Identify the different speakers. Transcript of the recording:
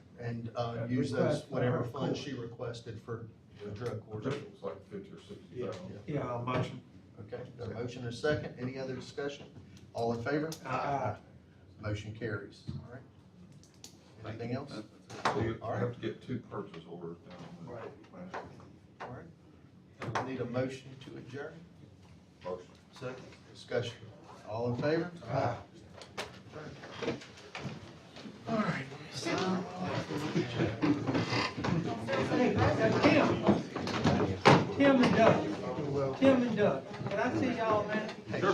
Speaker 1: and, uh,
Speaker 2: Uh,
Speaker 1: use those,
Speaker 2: request for
Speaker 1: whatever
Speaker 2: her
Speaker 1: funds
Speaker 2: court.
Speaker 1: she requested for the drug
Speaker 3: I
Speaker 1: court.
Speaker 3: think it was like fifty or sixty thousand.
Speaker 2: Yeah, I'll motion.
Speaker 1: Okay, got a motion and a second, any other discussion? All in favor?
Speaker 2: Aye.
Speaker 1: Motion carries, all right. Anything else?
Speaker 3: So you
Speaker 1: All right.
Speaker 3: have to get two purchase orders down. Right.
Speaker 1: All right. Need a motion to adjourn?
Speaker 3: Motion.
Speaker 1: Second. Discussion, all in favor?
Speaker 2: Aye.
Speaker 1: All right.
Speaker 2: Hey, Tim. Tim and Doug, Tim and Doug, can I see y'all, man?
Speaker 1: Hey,